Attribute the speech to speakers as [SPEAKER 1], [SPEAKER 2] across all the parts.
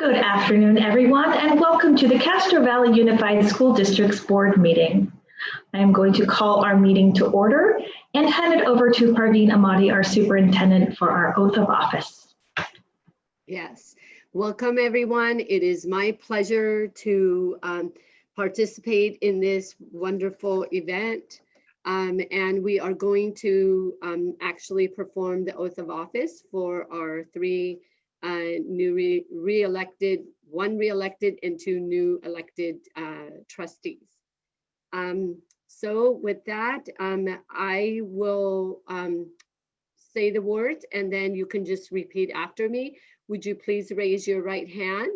[SPEAKER 1] Good afternoon, everyone, and welcome to the Castro Valley Unified School District's board meeting. I am going to call our meeting to order and hand it over to Parveen Amadi, our superintendent, for our oath of office.
[SPEAKER 2] Yes, welcome everyone. It is my pleasure to um, participate in this wonderful event. Um, And we are going to um, actually perform the oath of office for our three uh, new re- re-elected, one re-elected and two new elected uh, trustees. Um, So with that, um, I will um, say the words and then you can just repeat after me. Would you please raise your right hand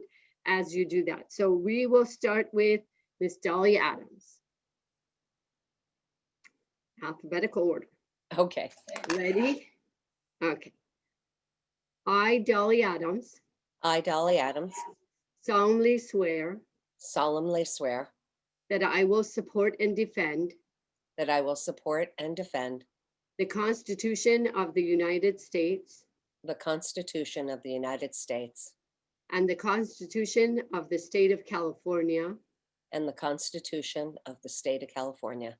[SPEAKER 2] as you do that? So we will start with Miss Dolly Adams. Alphabetical order.
[SPEAKER 3] Okay,
[SPEAKER 2] Ready? Okay. I, Dolly Adams,
[SPEAKER 3] I, Dolly Adams,
[SPEAKER 2] solemnly swear
[SPEAKER 3] solemnly swear
[SPEAKER 2] that I will support and defend
[SPEAKER 3] that I will support and defend
[SPEAKER 2] the Constitution of the United States
[SPEAKER 3] the Constitution of the United States
[SPEAKER 2] and the Constitution of the State of California
[SPEAKER 3] and the Constitution of the State of California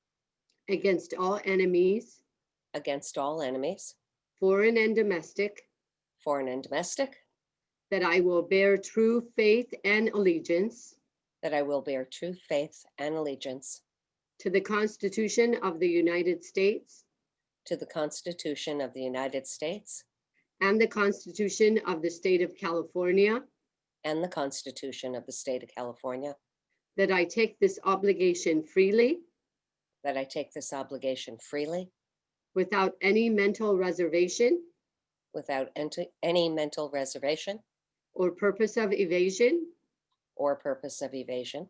[SPEAKER 2] against all enemies,
[SPEAKER 3] against all enemies,
[SPEAKER 2] foreign and domestic,
[SPEAKER 3] foreign and domestic,
[SPEAKER 2] that I will bear true faith and allegiance
[SPEAKER 3] that I will bear true faith and allegiance
[SPEAKER 2] to the Constitution of the United States
[SPEAKER 3] to the Constitution of the United States
[SPEAKER 2] and the Constitution of the State of California,
[SPEAKER 3] and the Constitution of the State of California,
[SPEAKER 2] that I take this obligation freely
[SPEAKER 3] that I take this obligation freely
[SPEAKER 2] without any mental reservation
[SPEAKER 3] without ent- any mental reservation
[SPEAKER 2] or purpose of evasion,
[SPEAKER 3] or purpose of evasion,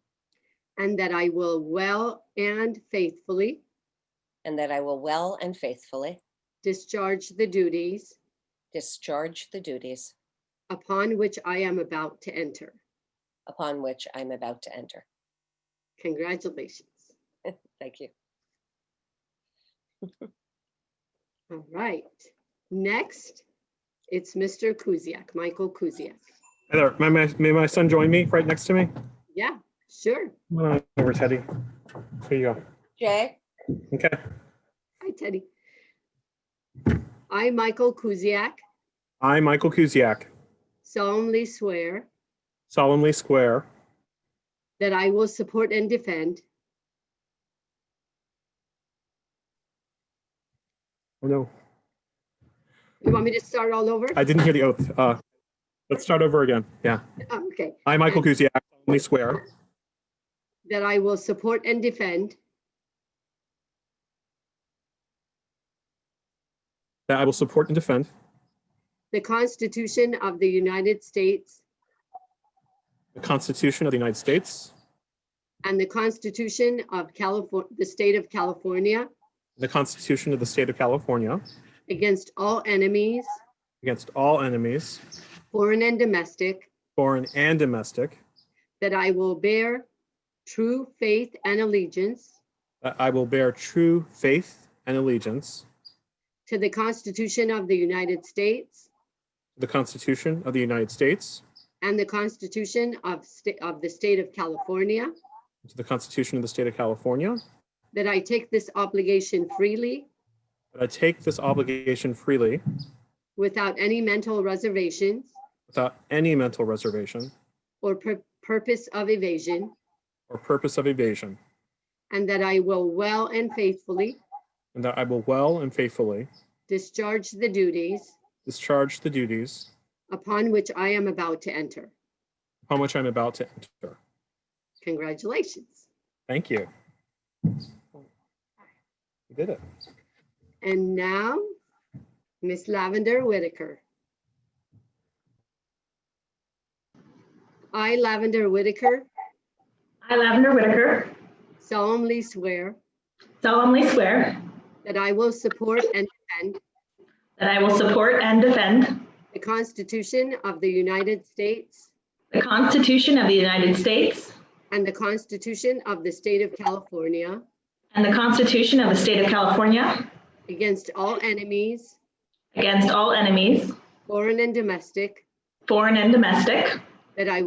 [SPEAKER 2] and that I will well and faithfully
[SPEAKER 3] and that I will well and faithfully
[SPEAKER 2] discharge the duties
[SPEAKER 3] discharge the duties
[SPEAKER 2] upon which I am about to enter.
[SPEAKER 3] upon which I'm about to enter.
[SPEAKER 2] Congratulations.
[SPEAKER 3] Thank you.
[SPEAKER 2] All right. Next, it's Mr. Kuziak, Michael Kuziak.
[SPEAKER 4] Hey there, may my, may my son join me right next to me?
[SPEAKER 2] Yeah, sure.
[SPEAKER 4] Come on Over Teddy. Here you go.
[SPEAKER 3] Jay?
[SPEAKER 4] Okay,
[SPEAKER 2] Hi, Teddy. I, Michael Kuziak,
[SPEAKER 4] I, Michael Kuziak,
[SPEAKER 2] solemnly swear
[SPEAKER 4] solemnly swear
[SPEAKER 2] that I will support and defend
[SPEAKER 4] Oh no,
[SPEAKER 2] You want me to start all over?
[SPEAKER 4] I didn't hear the oath. Uh, let's start over again. Yeah,
[SPEAKER 2] Oh, Okay,
[SPEAKER 4] I, Michael Kuziak, solemnly swear
[SPEAKER 2] that I will support and defend
[SPEAKER 4] that I will support and defend
[SPEAKER 2] the Constitution of the United States
[SPEAKER 4] the Constitution of the United States,
[SPEAKER 2] and the Constitution of California, the State of California,
[SPEAKER 4] the Constitution of the State of California,
[SPEAKER 2] against all enemies,
[SPEAKER 4] against all enemies,
[SPEAKER 2] foreign and domestic,
[SPEAKER 4] foreign and domestic,
[SPEAKER 2] that I will bear true faith and allegiance
[SPEAKER 4] that I will bear true faith and allegiance
[SPEAKER 2] to the Constitution of the United States
[SPEAKER 4] to the Constitution of the United States,
[SPEAKER 2] and the Constitution of State, of the State of California,
[SPEAKER 4] to the Constitution of the State of California,
[SPEAKER 2] that I take this obligation freely
[SPEAKER 4] That I take this obligation freely,
[SPEAKER 2] without any mental reservations
[SPEAKER 4] without any mental reservation
[SPEAKER 2] or pur- purpose of evasion,
[SPEAKER 4] or purpose of evasion,
[SPEAKER 2] and that I will well and faithfully
[SPEAKER 4] and that I will well and faithfully
[SPEAKER 2] discharge the duties
[SPEAKER 4] discharge the duties
[SPEAKER 2] upon which I am about to enter.
[SPEAKER 4] upon which I'm about to enter.
[SPEAKER 2] Congratulations.
[SPEAKER 4] Thank you. You did it.
[SPEAKER 2] And now, Miss Lavender Whitaker. I, Lavender Whitaker,
[SPEAKER 1] I, Lavender Whitaker,
[SPEAKER 2] solemnly swear
[SPEAKER 1] solemnly swear
[SPEAKER 2] that I will support and defend
[SPEAKER 1] that I will support and defend
[SPEAKER 2] the Constitution of the United States
[SPEAKER 1] the Constitution of the United States
[SPEAKER 2] and the Constitution of the State of California
[SPEAKER 1] and the Constitution of the State of California
[SPEAKER 2] against all enemies,
[SPEAKER 1] against all enemies,
[SPEAKER 2] foreign and domestic,
[SPEAKER 1] foreign and domestic,
[SPEAKER 2] that I